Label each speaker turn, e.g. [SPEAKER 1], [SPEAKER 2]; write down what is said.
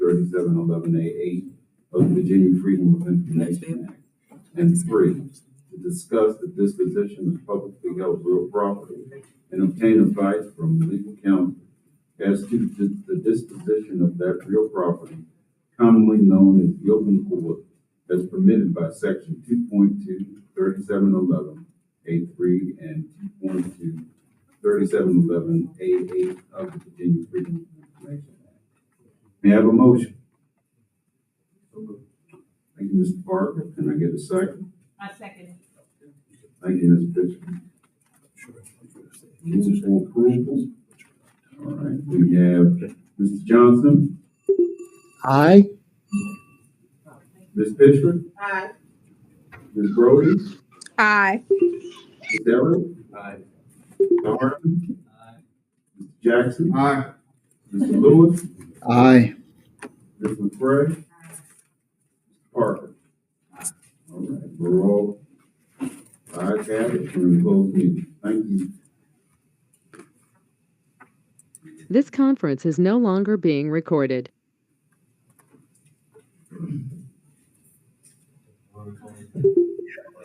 [SPEAKER 1] thirty-seven eleven A eight of the Virginia Freedom of Information Act. And three, to discuss the disposition of publicly held real property and obtain advice from legal counsel as to the- the disposition of that real property commonly known as the open court as permitted by section 2.2, 3711 A three and 2.2, 3711 A eight of the Virginia Freedom of Information Act. May I have a motion? Thank you, Mr. Parker. Can I get a second?
[SPEAKER 2] I second
[SPEAKER 1] Thank you, Ms. Bishop. Move for approval. All right, we have Mr. Johnson,
[SPEAKER 3] Aye.
[SPEAKER 1] Ms. Bishop,
[SPEAKER 2] it. Aye.
[SPEAKER 1] Ms. Brody,
[SPEAKER 4] Aye.
[SPEAKER 1] Ms. Darrow. Aye. Mr. Hartman. Aye. Mr. Jackson.
[SPEAKER 3] Aye.
[SPEAKER 1] Mr. Lewis,
[SPEAKER 3] Aye.
[SPEAKER 1] Ms. McCray. Mr. Parker. All right, we're all, I have it, we're in closed meeting. Thank you.
[SPEAKER 5] This conference is no longer being recorded.